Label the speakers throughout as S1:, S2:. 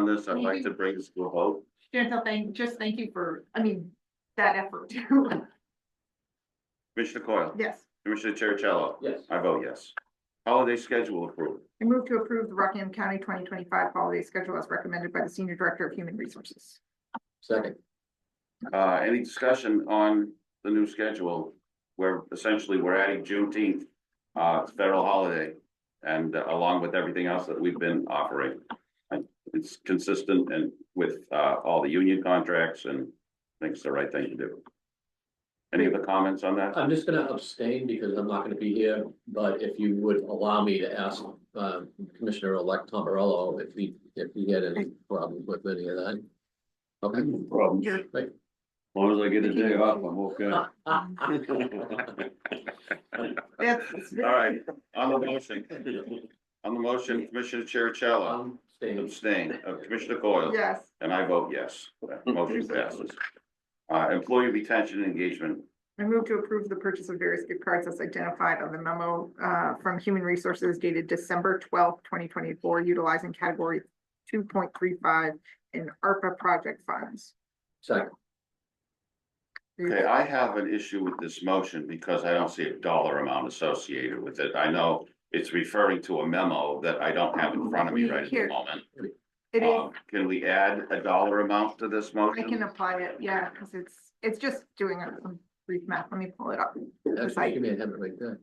S1: this, I'd like to bring this to a vote.
S2: Gentle, thank, just thank you for, I mean, that effort.
S1: Commissioner Coyle,
S2: Yes,
S1: Commissioner Chercello,
S3: Yes.
S1: I vote yes. Holiday schedule approved.
S2: I move to approve the Rockingham County twenty twenty-five holiday schedule as recommended by the Senior Director of Human Resources.
S3: Second.
S1: Uh, any discussion on the new schedule? Where essentially we're adding Juneteenth, uh, federal holiday. And along with everything else that we've been offering. And it's consistent and with, uh, all the union contracts and thinks the right thing to do. Any other comments on that?
S3: I'm just gonna abstain because I'm not gonna be here, but if you would allow me to ask um, Commissioner-elect Tom Morello if he, if he had any problems with any of that. Okay.
S1: Problem.
S2: You're-
S3: Right.
S1: long as I get a day off, I'm okay.
S2: That's-
S1: All right, on the motion, on the motion, Commissioner Chercello
S3: I'm staying.
S1: abstain, uh, Commissioner Coyle,
S2: Yes,
S1: and I vote yes. That Motion passes. Uh, employee retention and engagement,
S2: I move to approve the purchase of various gift cards as identified on the memo uh, from Human Resources dated December twelfth, twenty twenty-four, utilizing category two point three five in ARPA project funds.
S3: Second,
S1: okay, I have an issue with this motion because I don't see a dollar amount associated with it. I know it's referring to a memo that I don't have in front of me right at the
S2: Here.
S1: moment.
S2: It is,
S1: Um, Can we add a dollar amount to this
S2: I
S1: motion?
S2: can apply it, yeah, because it's, it's just doing a brief math. Let me pull it up.
S3: actually, give me a hand right there.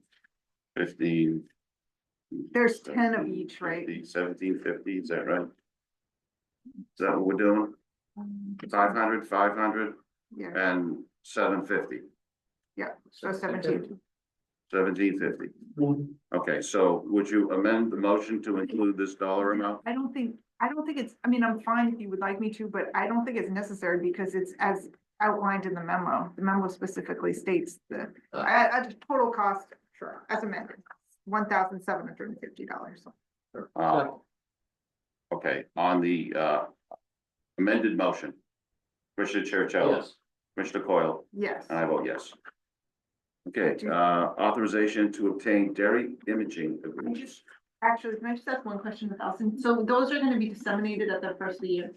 S1: Fifteen.
S2: There's ten of each, right?
S1: 50, Seventeen fifty, is that right? Is that what we're doing? Five hundred, five hundred,
S2: Yeah,
S1: and seven fifty,
S2: so seventeen.
S1: seventeen fifty.
S3: One.
S1: Okay, so would you amend the motion to include this dollar amount?
S2: I don't think, I don't think it's, I mean, I'm fine if you would like me to, but I don't think it's necessary because it's as outlined in the memo. The memo specifically states the,
S3: Uh.
S2: at, at the total cost, sure, as amended, one thousand seven hundred and fifty dollars.
S1: Uh, okay, on the, uh, amended motion. Commissioner Chercello,
S3: Yes,
S1: Commissioner Coyle,
S2: Yes,
S3: Uh.
S1: and I vote yes. Okay, uh, authorization to obtain dairy imaging agreements.
S4: Actually, can I just ask one question, Allison? So those are gonna be disseminated at the first of the year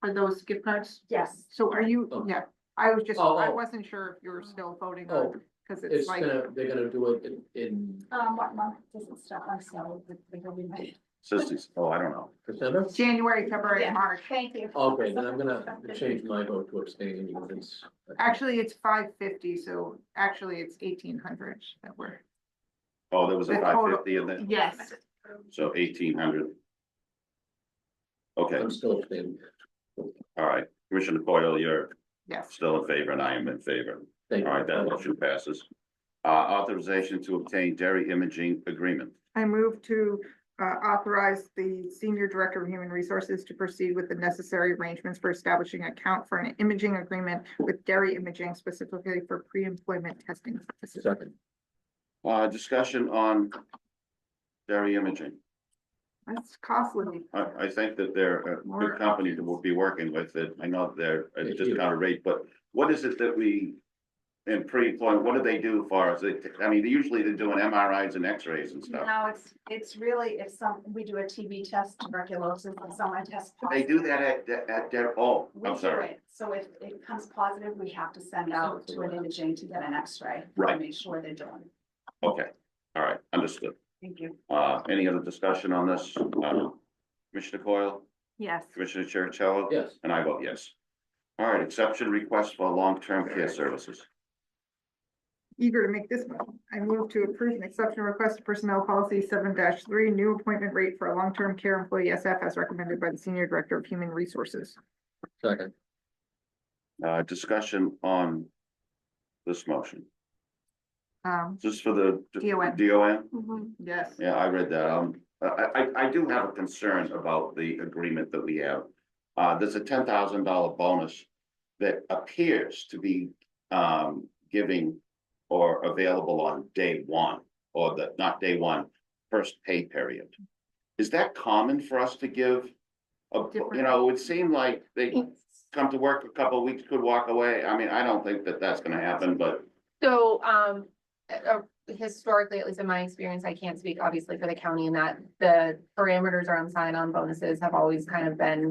S4: for those gift cards?
S2: yes. So are you,
S3: Oh.
S2: yeah, I was just,
S3: Oh,
S2: I
S3: oh.
S2: wasn't sure if you were still voting
S3: oh,
S2: on, because it's
S3: it's
S2: like,
S3: gonna, they're gonna do it in, in
S4: Um, what month does it start? I'm sorry, but they're gonna be made.
S1: Sisters, oh, I don't know.
S3: December?
S2: January, February,
S4: Yeah.
S2: March.
S4: Thank you.
S3: Okay, then I'm gonna change my vote to abstain because it's.
S2: Actually, it's five fifty, so actually it's eighteen hundred that we're.
S1: Oh, there was a
S2: The
S1: five
S2: total-
S1: fifty in there?
S2: Yes.
S1: So eighteen hundred. Okay,
S3: I'm still abstaining.
S1: all right, Commissioner Coyle, you're
S2: Yes,
S1: still in favor and I am in favor.
S3: Thank
S1: All
S3: you.
S1: right, that motion passes. Uh, authorization to obtain dairy imaging agreement.
S2: I move to uh, authorize the Senior Director of Human Resources to proceed with the necessary arrangements for establishing account for an imaging agreement with dairy imaging specifically for pre-employment testing purposes.
S3: Second,
S1: Uh, discussion on dairy imaging.
S2: That's costly.
S1: I, I think that they're a good company that we'll be working with. That I know they're at a discounted rate, but what is it that we in pre-employment, what do they do for us? They- I mean, usually they're doing MRIs and X-rays and stuff.
S4: No, it's, it's really, if some, we do a TB test, tuberculosis, and someone tests.
S1: They do
S4: positive,
S1: that at, at their, oh,
S4: we
S1: I'm
S4: do
S1: sorry.
S4: it. So if it comes positive, we have to send out to an imaging to get an X-ray.
S1: Right.
S4: to Make sure they're doing. it.
S1: Okay, all right, understood.
S4: Thank you.
S1: Uh, any other discussion on this? Uh, Commissioner Coyle,
S2: Yes.
S1: Commissioner Chercello?
S3: yes.
S1: And I vote yes. All right, exception request for long-term care services.
S2: Eager to make this one. I move to approve an exception request to personnel policy seven three, new appointment rate for a long-term care employee SF as recommended by the Senior Director of Human Resources.
S3: Second,
S1: Uh, discussion on this motion.
S2: Um,
S1: Is this for the?
S2: DON.
S1: DON?
S4: Mm-hmm.
S2: yes.
S1: Yeah, I read that. Um, I, I, I do have a concern about the agreement that we have. Uh, there's a ten thousand dollar bonus that appears to be, um, giving or available on day one, or the, not day one, first pay period. Is that common for us to give? A, you
S2: Different.
S1: know, it would seem like they come to work a couple of weeks, could walk away. I mean, I don't think that that's gonna happen, but,
S5: So, um, uh, historically, at least in my experience, I can't speak obviously for the county in that the parameters around sign-on bonuses have always kind of been